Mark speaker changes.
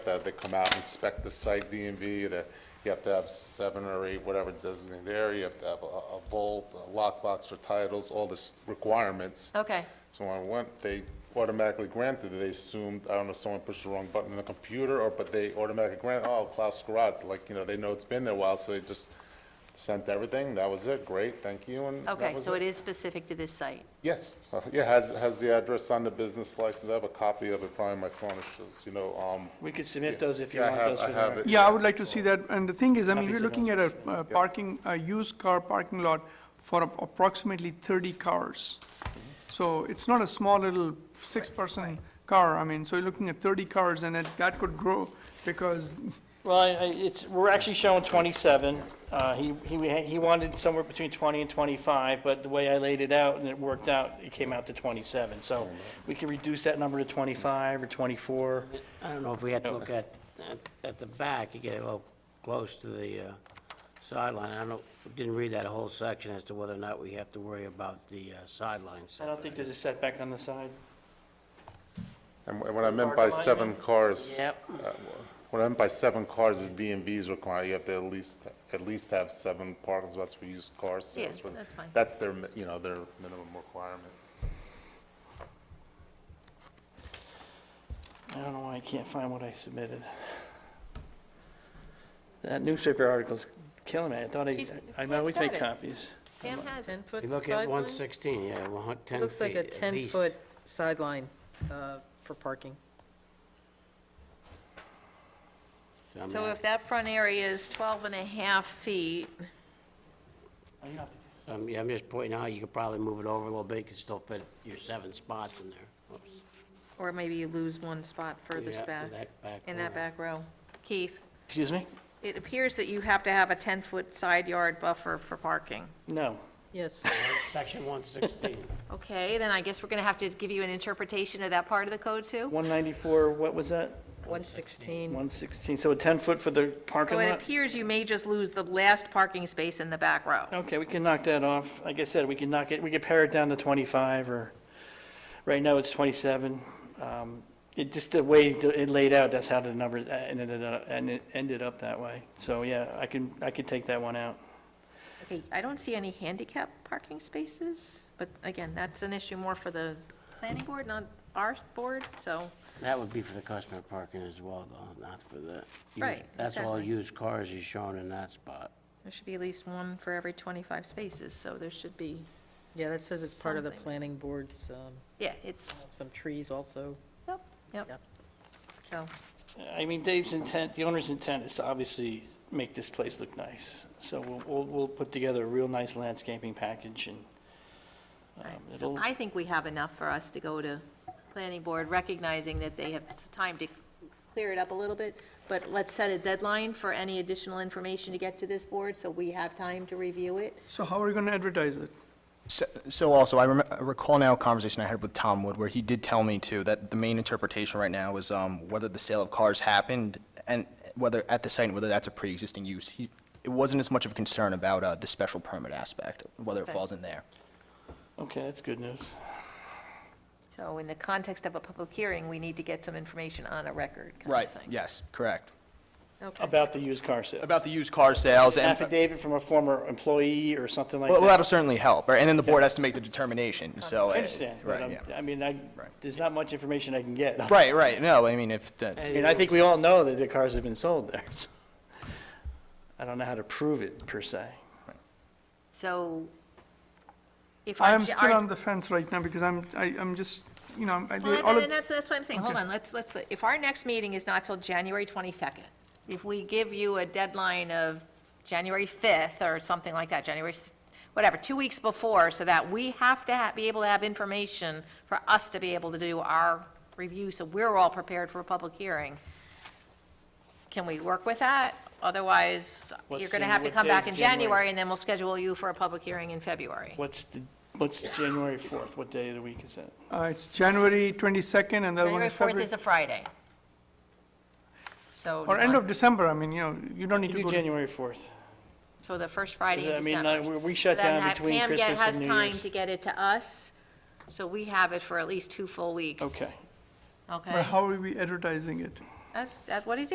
Speaker 1: to have they come out, inspect the site DMV, that you have to have seven or eight, whatever designated area, you have to have a a vault, a lockbox for titles, all this requirements.
Speaker 2: Okay,
Speaker 1: So when I went, they automatically granted, it. they assumed, I don't know, someone pushed the wrong button on the computer, or, but they automatically granted, oh, Klaus Scarratt, like, you know, they know it's been there a while, so they just sent everything, that was it, great, thank you, and that
Speaker 2: okay,
Speaker 1: was
Speaker 2: so it is specific to this site.
Speaker 1: Yes, Uh, yeah, has, has the address on the business license, I have a copy of it, probably in my phone, it shows, you know, um.
Speaker 3: We could submit those if you
Speaker 1: yeah, I
Speaker 3: want
Speaker 1: have-
Speaker 3: those.
Speaker 1: I
Speaker 3: with
Speaker 1: have
Speaker 3: our-
Speaker 1: it.
Speaker 4: Yeah, I would like to see that, and the thing is, I mean,
Speaker 3: Copies
Speaker 4: we're
Speaker 3: of
Speaker 4: looking at a uh, parking, a used car parking lot for ap- approximately thirty cars. So it's not a small little six-person car, I mean, so you're looking at thirty cars, and that, that could grow, because,
Speaker 3: Well, I- I- it's, we're actually showing 27. Uh, He, he he wanted somewhere between 20 and 25, but the way I laid it out and it worked out, it came out to 27. So we could reduce that number to 25 or 24.
Speaker 5: I don't know if we have to look at, at- at the back, you get a little close to the uh, sideline. I don't, know- didn't read that whole section as to whether or not we have to worry about the uh, sidelines.
Speaker 3: I don't think there's a setback on the side.
Speaker 1: And wh- what I meant by
Speaker 3: Parking lot, you
Speaker 1: seven
Speaker 3: mean?
Speaker 1: cars.
Speaker 5: Yep.
Speaker 1: uh, What I meant by seven cars is DMV's requirement, you have to at least, at least have seven parking spots for used cars. so
Speaker 2: Yeah,
Speaker 1: what-
Speaker 2: that's fine.
Speaker 1: That's their, mi- you know, their minimum requirement.
Speaker 3: I don't know why I can't find what I submitted. That newspaper article's killing me. I thought I,
Speaker 6: She's-
Speaker 3: I always make
Speaker 6: it's got it.
Speaker 3: copies.
Speaker 2: Pam has it.
Speaker 6: 10-foot
Speaker 5: You look at
Speaker 6: sideline?
Speaker 5: 116, yeah, one hun- 10 feet
Speaker 6: Looks like a
Speaker 5: at least.
Speaker 6: 10-foot sideline uh, for parking.
Speaker 5: I mean,
Speaker 2: So if that front area is 12 and a half feet,
Speaker 3: Oh, you don't have to-
Speaker 5: um, Yeah, I'm just pointing out, you could probably move it over a little bit, you could still fit your seven spots in there. Oops.
Speaker 2: or maybe you lose one spot furthest
Speaker 5: Yeah,
Speaker 2: back,
Speaker 5: that back
Speaker 2: in that
Speaker 5: corner.
Speaker 2: back row. Keith,
Speaker 3: Excuse me?
Speaker 2: it appears that you have to have a 10-foot side yard buffer for parking.
Speaker 3: No.
Speaker 6: Yes,
Speaker 5: Section 116.
Speaker 2: Okay, then I guess we're going to have to give you an interpretation of that part of the code, too?
Speaker 3: 194, what was that?
Speaker 6: 116.
Speaker 3: 116, so a 10-foot for the parking
Speaker 2: So it
Speaker 3: lot?
Speaker 2: appears you may just lose the last parking space in the back row.
Speaker 3: Okay, we can knock that off. Like I said, we can knock it, we could pare it down to 25 or, right now it's 27. Um, It, just the way it it laid out, that's how the number uh, ended up, and it ended up that way. So, yeah, I can, I can take that one out.
Speaker 2: Okay, I don't see any handicap parking spaces, but again, that's an issue more for the planning board, not our board, so,
Speaker 5: That would be for the customer parking as well, though, not for the. used-
Speaker 2: Right,
Speaker 5: That's all
Speaker 2: exactly.
Speaker 5: used cars he's shown in that spot.
Speaker 2: there should be at least one for every 25 spaces, so there should be,
Speaker 6: Yeah, that says it's part of the
Speaker 2: Something.
Speaker 6: planning board's, um,
Speaker 2: yeah, it's,
Speaker 6: some trees also.
Speaker 2: yep, yep.
Speaker 6: Yep.
Speaker 2: So,
Speaker 3: I mean, Dave's intent, the owner's intent is to obviously make this place look nice. So we'll, we'll, we'll put together a real nice landscaping package and um,
Speaker 2: all right. So
Speaker 3: it'll,
Speaker 2: I think we have enough for us to go to planning board, recognizing that they have time to clear it up a little bit, but let's set a deadline for any additional information to get to this board, so we have time to review it.
Speaker 4: so how are you gonna advertise it?
Speaker 7: So- So also, I rem- I recall now a conversation I had with Tom Wood where he did tell me too that the main interpretation right now is um, whether the sale of cars happened and whether at the site, and whether that's a pre-existing use. He- It wasn't as much of a concern about uh, the special permit aspect, whether it
Speaker 2: Okay.
Speaker 7: falls in there.
Speaker 3: okay, that's good news.
Speaker 2: So in the context of a public hearing, we need to get some information on a record kind
Speaker 7: Right,
Speaker 2: of thing.
Speaker 7: yes, correct.
Speaker 2: Okay.
Speaker 3: About the used car sales.
Speaker 7: About the used car sales and,
Speaker 3: affidavit from a former employee or something like
Speaker 7: well,
Speaker 3: that.
Speaker 7: that'll certainly help, right? And then the board has to make the determination, so.
Speaker 3: I
Speaker 7: uh,
Speaker 3: understand, but
Speaker 7: Right,
Speaker 3: I'm-
Speaker 7: yeah.
Speaker 3: I mean, I, there's not much information I can get.
Speaker 7: Right, right, no, I mean, if, the-
Speaker 3: I mean, I think we all know that the cars have been sold there. so. I don't know how to prove it per se.
Speaker 2: So if
Speaker 4: I
Speaker 2: our.
Speaker 4: am still on the fence right now, because I'm, I, I'm just, you know, I,
Speaker 2: Well,
Speaker 4: all
Speaker 2: and-
Speaker 4: of,
Speaker 2: and that's, that's what I'm saying, hold on, let's, let's, if our next meeting is not till January 22nd, if we give you a deadline of January 5th or something like that, January, s- whatever, two weeks before, so that we have to ha- be able to have information for us to be able to do our review, so we're all prepared for a public hearing, can we work with that? Otherwise,
Speaker 3: What's
Speaker 2: you're going to
Speaker 3: Janu-
Speaker 2: have to
Speaker 3: what
Speaker 2: come
Speaker 3: day
Speaker 2: back
Speaker 3: is
Speaker 2: in
Speaker 3: January?
Speaker 2: January, and then we'll schedule you for a public hearing in February.
Speaker 3: What's the, what's January 4th? What day of the week is that?
Speaker 4: uh, it's January twenty-second, and the other one
Speaker 2: January
Speaker 4: is
Speaker 2: 4th
Speaker 4: February.
Speaker 2: is a Friday. So.
Speaker 4: Or
Speaker 2: do you
Speaker 4: end
Speaker 2: want-
Speaker 4: of December, I mean, you know, you don't need
Speaker 3: You
Speaker 4: to
Speaker 3: do
Speaker 4: go to
Speaker 3: January 4th.
Speaker 2: So the first Friday in
Speaker 3: I mean,
Speaker 2: December.
Speaker 3: uh, we- we shut
Speaker 2: So then
Speaker 3: down
Speaker 2: that
Speaker 3: between
Speaker 2: Pam get-
Speaker 3: Christmas and New
Speaker 2: Has time
Speaker 3: Year's.
Speaker 2: to get it to us, so we have it for at least two full weeks.
Speaker 3: Okay.
Speaker 2: Okay?
Speaker 4: But how are we advertising it?
Speaker 2: That's, that's what he's